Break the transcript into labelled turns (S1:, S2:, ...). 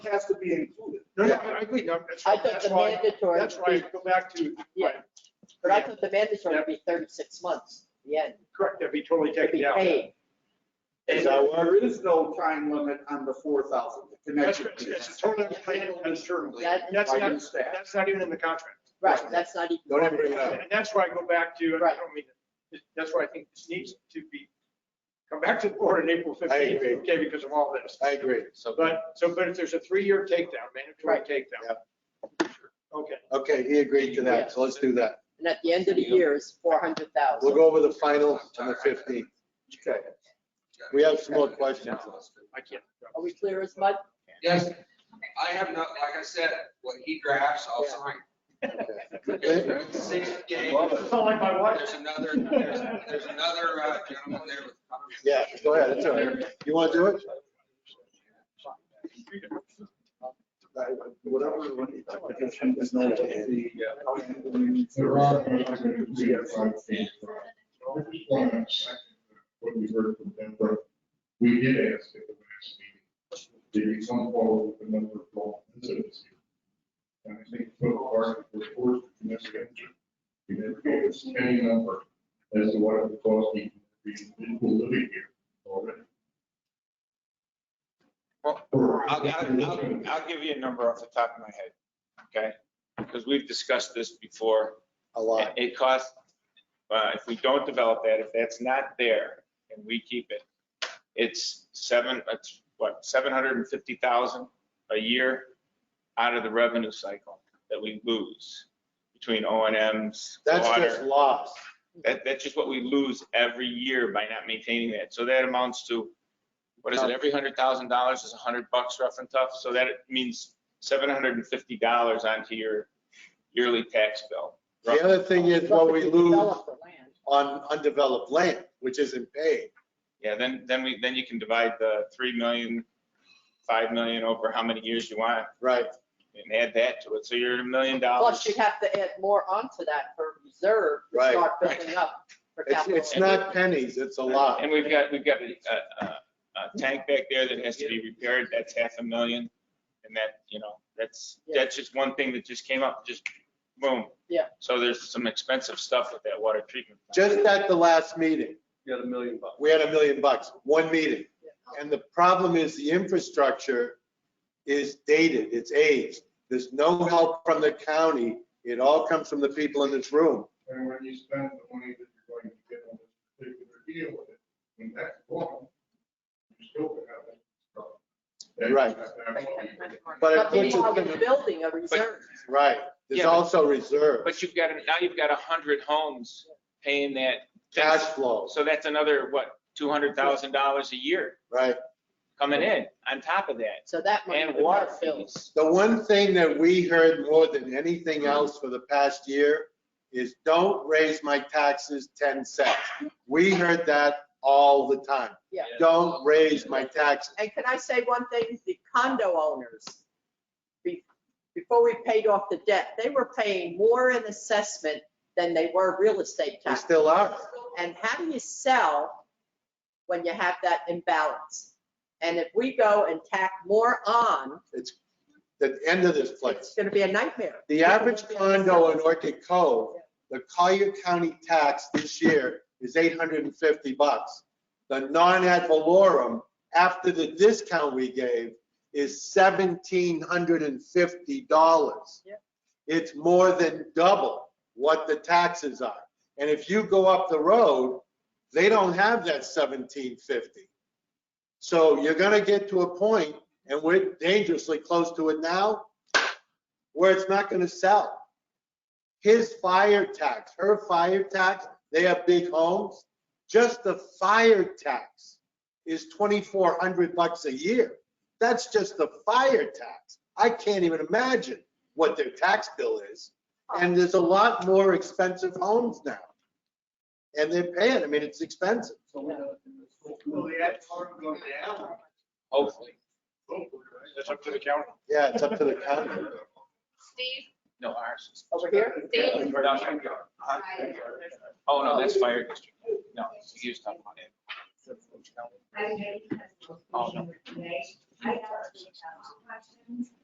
S1: has to be included.
S2: No, no, I I agree. No, that's
S3: I
S2: right.
S3: thought
S2: That's
S3: the
S2: why,
S3: mandatory.
S2: that's why I go back to, right,
S3: Yeah, but I thought the mandatory would be thirty-six months, the end,
S2: correct, that'd be totally
S3: to be
S2: taken out.
S3: paid.
S1: And there is no time limit on the four thousand, the
S2: That's,
S1: connection.
S2: it's it's totally,
S1: It's handled internally
S3: That-
S2: that's
S1: by
S2: not-
S1: your staff.
S2: that's not even in the contract.
S3: Right, that's not even.
S1: Don't ever bring it up.
S2: And that's why I go back to, and I
S3: Right.
S2: don't mean, to- that's why I think this needs to be, come back to the board on April
S4: I
S2: 15th,
S4: agree.
S2: okay, because of all this.
S4: I agree. So,
S2: But, so, but if there's a three-year takedown, mandatory
S3: Right.
S2: takedown. Okay.
S4: okay, he agreed to that, so let's do that.
S3: And at the end of the year is four hundred
S4: We'll
S3: thousand.
S4: go over the final on the 15th.
S1: Okay.
S4: We have some more questions.
S2: I can't.
S3: Are we clear as mud?
S5: Yes, I have not, like I said, what he drafts, I'll sign.
S4: Okay.
S5: It's Six days.
S2: It's not like my wife.
S5: There's another, there's there's another uh, gentleman there with.
S4: Yeah, go ahead, it's all right. You want to do it?
S6: What we heard from them, but we did ask at the last meeting, did we come forward with the number of law incidents? here? And I think so far, we're forced to mitigate. We never gave us any number as to what it would cost me to be living here already.
S7: Well,
S6: For-
S7: I'll, I'll, I'll- I'll give you a number off the top of my head, okay? Because we've discussed this before.
S4: A lot.
S7: It costs, uh, if we don't develop that, if that's not there and we keep it, it's seven, it's what, seven hundred and fifty thousand a year out of the revenue cycle that we lose between O and M's,
S4: That's just
S7: water.
S4: lost.
S7: That, that's just what we lose every year by not maintaining that. So that amounts to, what is it, every hundred thousand dollars is a hundred bucks rough and tough? So that means seven hundred and fifty dollars onto your yearly tax bill.
S4: The other thing is what we
S3: Nothing to
S4: lose
S3: develop the land.
S4: on undeveloped land, which isn't paid.
S7: Yeah, then, then we, then you can divide the three million, five million over how many years you want
S4: Right.
S7: and add that to it. So you're at a million dollars.
S3: Plus, you'd have to add more onto that for reserve. to
S4: Right.
S3: Start building up for
S4: It's,
S3: capital.
S4: it's not pennies, it's a lot.
S7: And we've got, we've got a, a, a tank back there that has to be repaired, that's half a million. And that, you know, that's, that's just one thing that just came up, just boom.
S3: Yeah.
S7: So there's some expensive stuff with that water treatment. plant.
S4: Just at the last meeting,
S1: You got a million bucks.
S4: we had a million bucks, one meeting. And the problem is the infrastructure is dated, it's aged. There's no help from the county. It all comes from the people in this room.
S6: And when you spend the money that you're going to get on this particular deal with it, when that's gone, you still could have that. problem. That's-
S4: Right.
S6: that's what we-
S4: But it
S3: But
S4: puts
S3: meanwhile,
S4: us in
S3: you're
S4: the,
S3: building a reserve.
S4: right, there's
S7: Yeah, but-
S4: also reserve,
S7: But you've got, now you've got a hundred homes paying that.
S4: cash flow,
S7: So that's another, what, two hundred thousand dollars a year
S4: right?
S7: coming in on top of that.
S3: So that money
S7: And
S3: would
S7: water
S3: not build.
S7: fees.
S4: The one thing that we heard more than
S7: Mm-hmm.
S4: anything else for the past year is don't raise my taxes 10 cents. We heard that all the time.
S3: Yeah.
S4: Don't raise my taxes.
S3: And can I say one thing? The condo owners, be- before we paid off the debt, they were paying more in assessment than they were real estate
S4: We
S3: tax.
S4: still are.
S3: And how do you sell when you have that imbalance? And if we go and tack more on,
S4: It's the end of this place.
S3: it's going to be a nightmare.
S4: The average condo in Orchid Cove, the Collier County tax this year is 850 bucks. The non-ad valorem, after the discount we gave, is $1,750.
S3: Yeah.
S4: It's more than double what the taxes are. And if you go up the road, they don't have that 1750. So you're gonna get to a point, and we're dangerously close to it now, where it's not gonna sell. His fire tax, her fire tax, they have big homes. Just the fire tax is twenty-four hundred bucks a year. That's just the fire tax. I can't even imagine what their tax bill is. And there's a lot more expensive homes now. And they're paying, I mean, it's expensive.
S1: Well, the ad valorem goes down.
S7: Hopefully.
S2: That's up to the county.
S4: Yeah, it's up to the county.
S8: Steve,
S7: No, ours is.
S3: Over here?
S8: Steve,
S7: Oh, no, that's fire district. No, he was talking about it.
S8: I
S7: Oh, no.
S8: I actually have two questions.